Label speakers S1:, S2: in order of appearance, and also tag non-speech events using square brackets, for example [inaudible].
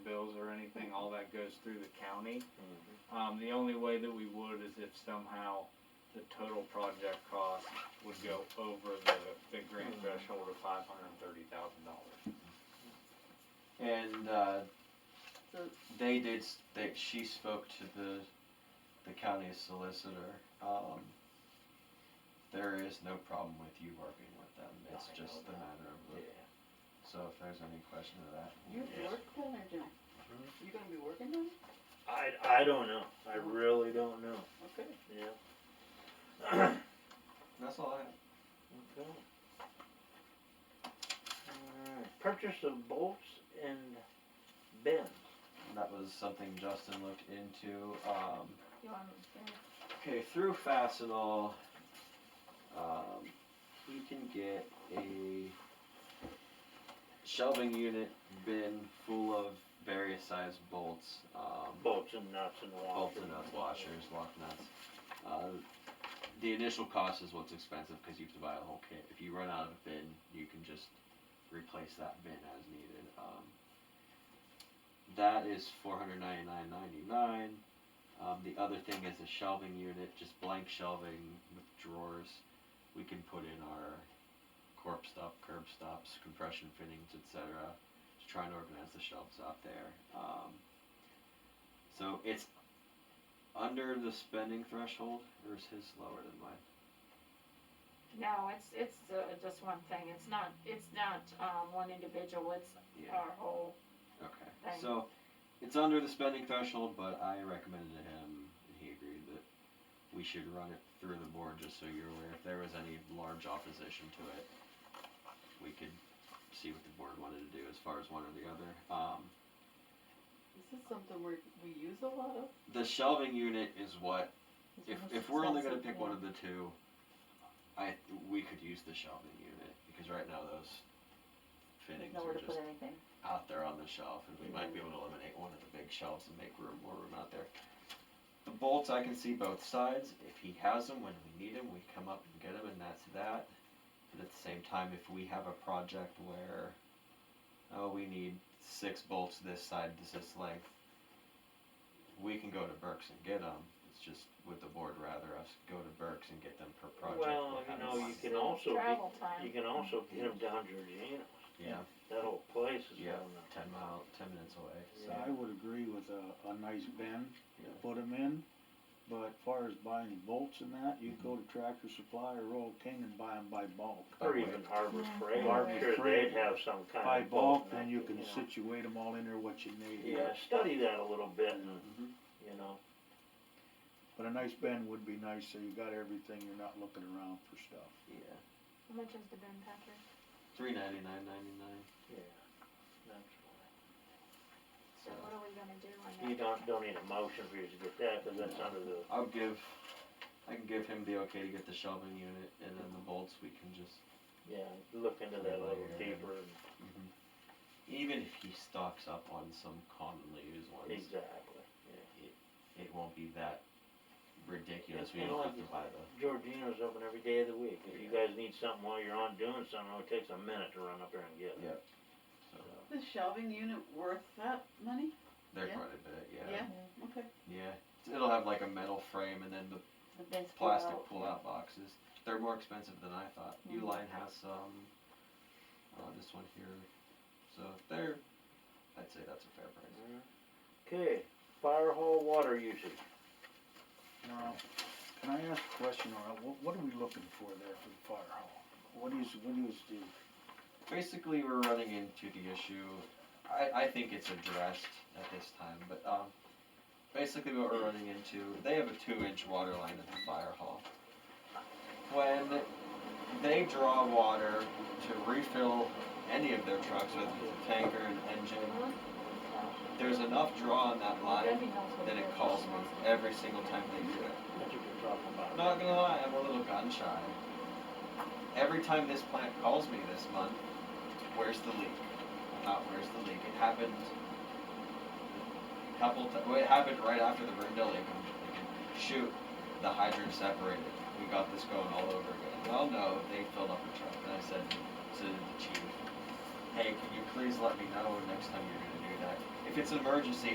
S1: that goes through the county.
S2: Mm-hmm.
S1: Um, the only way that we would is if somehow the total project cost would go over the, the grant threshold of five hundred and thirty thousand dollars.
S3: And uh,
S4: So-
S3: they did. s- They, she spoke to the the county solicitor. Um, there is no problem with you working with them. It's
S1: I
S3: just
S1: know
S3: a
S1: that.
S3: matter of.
S1: Yeah.
S3: So if there's any question of that,
S4: You
S1: Yeah.
S4: work down there, Jim? You gonna be working down
S5: Mm-hmm.
S2: I, I don't know. I really don't know. [clears throat]
S4: there? Okay.
S2: Yeah.
S3: that's all I have.
S2: Okay. Alright, Purchase of bolts and bends.
S3: That was something Justin looked into. Um,
S4: You want me
S3: Okay, through Fastenal, um, you can get a shelving unit bin full of various size bolts, um,
S2: Bolts and nuts and washers.
S3: bolts and nuts, washers, lock nuts. Uh, the initial cost is what's expensive because you have to buy a whole kit. If you run out of a bin, you can just replace that bin as needed. Um, that is four hundred ninety nine ninety nine. Um, the other thing is a shelving unit, just blank shelving with drawers. We can put in our corp stop, curb stops, compression fittings, etc. To try and organize the shelves out there. Um, so it's under the spending threshold, or is his lower than mine?
S5: No, it's, it's uh, just one thing, it's not, it's not, um, one individual, it's
S3: Yeah.
S5: our whole,
S3: Okay.
S5: Thanks.
S3: So it's under the spending threshold, but I recommended to him, and he agreed that we should run it through the board just so you're aware. If there was any large opposition to it, we could see what the board wanted to do as far as one or the other. Um,
S4: This is something we're, we use a lot of.
S3: the shelving unit is what If,
S4: It's most
S3: if we're only gonna pick
S4: expensive,
S3: one
S4: yeah.
S3: of the two, I, we could use the shelving unit, because right now those
S4: There's
S3: fittings
S4: nowhere
S3: are
S4: to put
S3: just
S4: anything.
S3: out there on the shelf, and we might be able to eliminate one of the big shelves and make room, more room out there. The bolts, I can see both sides, if he has them, when we need them, we come up and get them, and that's that. But at the same time, if we have a project where, oh, we need six bolts this side, this this length, we can go to Burke's and get them. It's just would the board rather us go to Burke's and get them per project?
S2: Well, you
S3: than have
S2: know, you
S3: them-
S2: can also, get-
S5: travel time.
S2: you can also get them down Georgiana.
S3: Yeah,
S2: That whole place is
S3: Yeah.
S2: down there.
S3: ten mile, ten minutes away, so.
S6: So I would agree with a, a nice bin,
S3: Yeah.
S6: to put them in, but as far as buying bolts and that, you go to Tractor Supply or Royal King and buy them by bulk.
S2: Or even Harbor Freight.
S6: Harbor
S2: I'm sure
S6: Freight.
S2: they'd have some kind of.
S6: By bulk,
S2: boat
S6: then
S2: now,
S6: you can
S2: know.
S6: situate them all in there what you need.
S2: Yeah, study that a little bit and,
S3: Mhm.
S2: you know,
S6: But a nice bin would be nice, so you got everything, you're not looking around for stuff.
S3: Yeah,
S5: How much is the bin, Patrick?
S3: three ninety-nine, ninety-nine,
S2: yeah. That's
S5: So
S3: so.
S5: what are we gonna do on
S2: fine.
S5: that?
S2: You don't, don't need a motion for you to get that, cause that's under the,
S3: I'll give, I can give him the okay to get the shelving unit, and then the bolts, we can just,
S2: yeah, look into that a little
S3: Yeah.
S2: deeper and
S3: Mm-hmm. even if he stocks up on some commonly used ones,
S2: Exactly.
S3: it won't be that ridiculous, we
S2: Yeah,
S3: don't
S2: I
S3: have to
S2: like
S3: buy the.
S2: Georgina's open every day of the week. If you guys need something while you're on doing something, oh, it takes a minute to run up there and get it.
S3: Yep. So,
S4: The shelving unit worth that money?
S3: they're
S4: Yeah.
S3: quite a bit, yeah,
S4: Yeah, okay.
S3: yeah, it'll have like a metal frame and then the
S4: The bins pull
S3: plastic
S4: out.
S3: pull-out boxes. They're more expensive than I thought.
S4: Mhm.
S3: Uline has some. Uh, this one here, so they're. I'd say that's a fair price.
S2: Okay, fire hall water usage.
S6: Now, can I ask a question, or what, what are we looking for there for the fire hall? What is, what is the,
S3: Basically, we're running into the issue. I, I think it's addressed at this time, but um, basically what we're running into, they have a two-inch water line at the fire hall. When they draw water to refill any of their trucks, whether it's a tanker, an engine, there's enough draw on that line
S5: Debbie knows what
S3: that it
S5: it is.
S3: calls me every single time they do it.
S2: That's what you're talking
S3: I'm
S2: about.
S3: not gonna lie, I'm a little gun shy. Every time this plant calls me this month, where's the leak? Not where's the leak? It happened a couple times. Well, it happened right after the Brindle leak. I'm just thinking, shoot, the hydrant separated. We got this going all over again. Well, no, they filled up the truck. And I said to the chief, hey, can you please let me know next time you're gonna do that? If it's an emergency,